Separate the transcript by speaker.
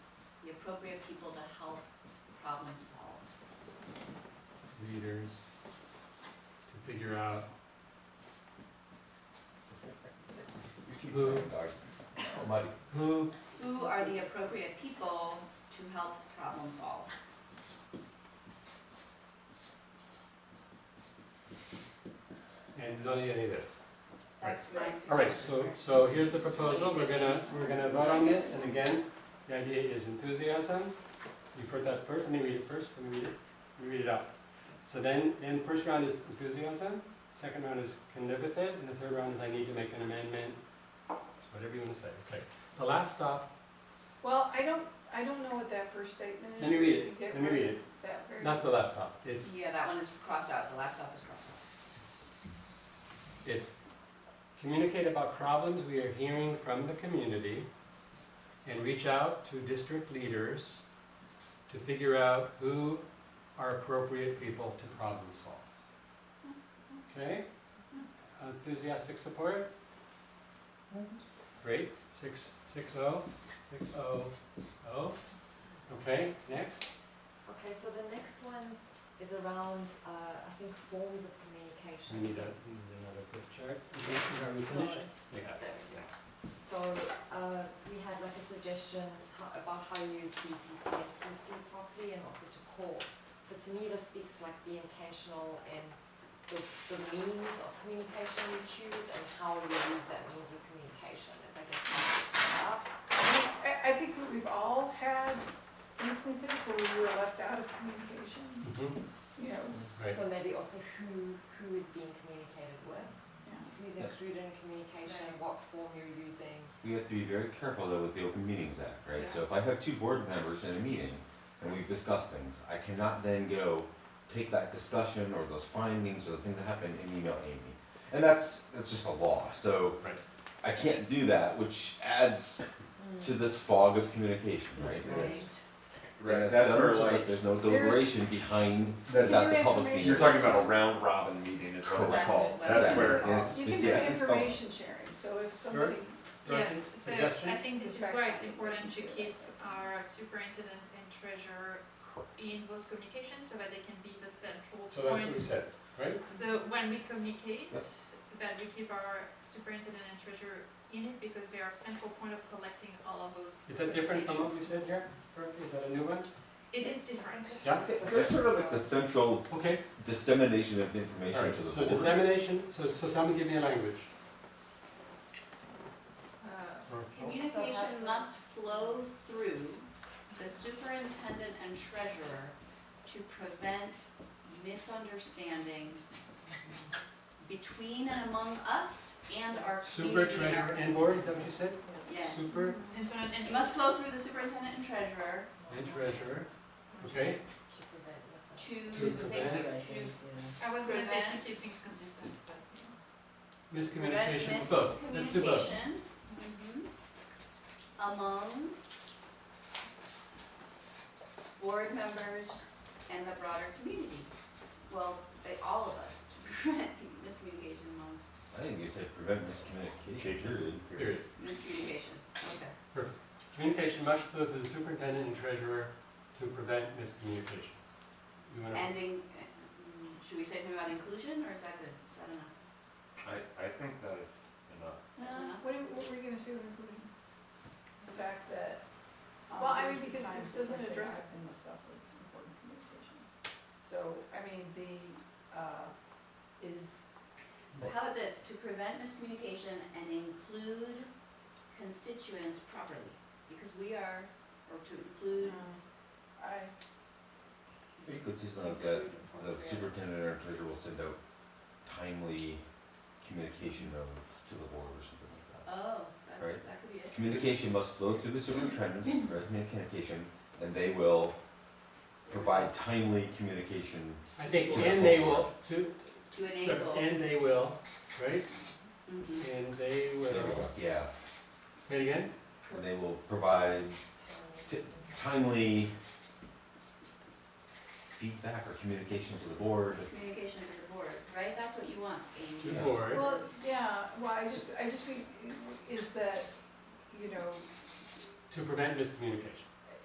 Speaker 1: appropriate people to help problem solve.
Speaker 2: readers to figure out
Speaker 3: You keep
Speaker 2: Who-
Speaker 3: saying dog. Oh, Muddy.
Speaker 2: who,
Speaker 1: Who are the appropriate people to help problem solve?
Speaker 2: and we don't need any of this.
Speaker 1: That's my suggestion.
Speaker 2: All right, so, so here's the proposal, we're gonna, we're gonna vote on this, and again, the idea is enthusiasm. You've heard that first, let me read it first, let me read it, let me read it out. So then, then the first round is enthusiasm, second round is can live with it, and the third round is I need to make an amendment, whatever you wanna say, okay. The last stop,
Speaker 4: Well, I don't, I don't know what that first statement is.
Speaker 2: let me read
Speaker 4: You
Speaker 2: it,
Speaker 4: get
Speaker 2: let me read it,
Speaker 4: That very.
Speaker 2: not the last stop, it's
Speaker 1: Yeah, that one is crossed out, the last stop is crossed out.
Speaker 2: It's communicate about problems we are hearing from the community and reach out to district leaders to figure out who are appropriate people to problem solve. Okay? Enthusiastic support? Great, six, six oh, six oh, oh. Okay, next,
Speaker 5: Okay, so the next one is around, uh, I think forms of
Speaker 2: we
Speaker 5: communication.
Speaker 2: need a, we need another quick chart. Are we finished?
Speaker 5: It's-
Speaker 2: We
Speaker 5: it's
Speaker 2: have it,
Speaker 5: there.
Speaker 2: yeah.
Speaker 5: So, uh, we had like a suggestion ho- about how you use BCC and CC properly and also to call. So to me, this speaks to like be intentional and the, the means of communication you choose and how you use that means of communication is I guess how it's set up.
Speaker 4: I, I think that we've all had instances where we were left out of communication,
Speaker 2: Mhm,
Speaker 4: you know.
Speaker 2: Right.
Speaker 5: So maybe also who, who is being communicated with. So who's
Speaker 6: Yeah.
Speaker 5: included in communication,
Speaker 1: Right.
Speaker 5: what form you're using.
Speaker 6: We have to be very careful though with the Open Meetings Act, right? So if I have two board members in a meeting and we've discussed things, I cannot then go take that discussion or those findings or the thing that happened and email Amy. And that's, that's just a law, so
Speaker 2: Right.
Speaker 6: I can't do that, which adds
Speaker 4: Mm.
Speaker 6: to this fog of communication, right? And it's, and it's
Speaker 3: That's where
Speaker 6: done so that
Speaker 3: like,
Speaker 6: there's no
Speaker 4: There's-
Speaker 6: deliberation behind
Speaker 3: That-
Speaker 6: that the public
Speaker 4: Your
Speaker 6: meeting.
Speaker 3: you're talking about a round robin meeting is what it's
Speaker 6: Correct.
Speaker 3: called.
Speaker 1: That's-
Speaker 3: That's where,
Speaker 1: that's-
Speaker 6: And it's
Speaker 4: You can do
Speaker 6: specific.
Speaker 4: information sharing, so if somebody,
Speaker 2: Dorothy,
Speaker 7: Yes, so
Speaker 2: suggestion?
Speaker 7: I think this is why it's important to
Speaker 4: Perspective.
Speaker 7: keep our superintendent and treasurer in those communications so that they can be the central
Speaker 2: So that's what we
Speaker 7: point.
Speaker 2: said, right?
Speaker 7: So when we communicate,
Speaker 6: Yep.
Speaker 7: that we keep our superintendent and treasurer in it because they are central point of collecting all of those.
Speaker 2: Is that different from what we
Speaker 7: communications.
Speaker 2: said here? Dorothy? Is that a new one?
Speaker 7: It is different.
Speaker 2: Yeah.
Speaker 6: There's sort of like the central
Speaker 2: Okay,
Speaker 6: dissemination of
Speaker 2: all
Speaker 6: information
Speaker 2: right,
Speaker 6: to the
Speaker 2: so
Speaker 6: board.
Speaker 2: dissemination, so, so someone give me a language.
Speaker 7: Uh,
Speaker 2: or-
Speaker 1: Communication must flow through the superintendent and treasurer to prevent misunderstanding between and among us and our
Speaker 2: Super
Speaker 1: community and our
Speaker 2: treasurer and board, is that what you said?
Speaker 1: Yes.
Speaker 2: Super
Speaker 7: Internet
Speaker 1: It
Speaker 7: and.
Speaker 1: must flow through the superintendent and treasurer
Speaker 2: and treasurer, okay?
Speaker 5: Should prevent this.
Speaker 1: to,
Speaker 2: To
Speaker 1: to
Speaker 2: prevent-
Speaker 7: I was gonna say to
Speaker 1: prevent-
Speaker 7: keep things consistent, but.
Speaker 1: prevent
Speaker 2: Miscommunication, both, let's do both.
Speaker 1: miscommunication mhm, among board members and the broader community. Well, they, all of us, to prevent miscommunication amongst,
Speaker 6: I think you said prevent miscommunication, period.
Speaker 2: Period.
Speaker 1: miscommunication, okay.
Speaker 2: Communication must flow through the superintendent and treasurer to prevent miscommunication. You wanna,
Speaker 1: Ending, mm, should we say something about inclusion, or is that good? Is that enough?
Speaker 3: I, I think that is enough.
Speaker 4: uh,
Speaker 1: That's enough.
Speaker 4: what, what were you gonna say with including? The fact that, um, well, I mean, because this doesn't address. I've been left off of important communication. So, I mean, the, uh, is.
Speaker 1: How about this, to prevent miscommunication and include constituents properly, because we are, or to include,
Speaker 4: I,
Speaker 6: You could see something like that, the superintendent or treasurer will send out timely communication note to the board or something like that.
Speaker 1: oh, that,
Speaker 6: Right.
Speaker 1: that could be it.
Speaker 6: Communication must flow through the superintendent, prevent communication, and they will provide timely communication.
Speaker 2: I think,
Speaker 6: to the
Speaker 2: and they
Speaker 6: full
Speaker 2: will,
Speaker 6: board.
Speaker 2: to,
Speaker 1: To enable.
Speaker 2: and they will, right?
Speaker 1: Mhm.
Speaker 2: And they
Speaker 6: There we
Speaker 2: will,
Speaker 6: go. Yeah,
Speaker 2: say it again?
Speaker 6: and they will provide ti- timely feedback or communication to the board.
Speaker 1: Communication to the board, right? That's what you want,
Speaker 2: To
Speaker 1: Amy.
Speaker 2: the
Speaker 6: Yeah.
Speaker 2: board.
Speaker 4: well, yeah, well, I just, I just, think is that, you know,
Speaker 2: To prevent miscommunication.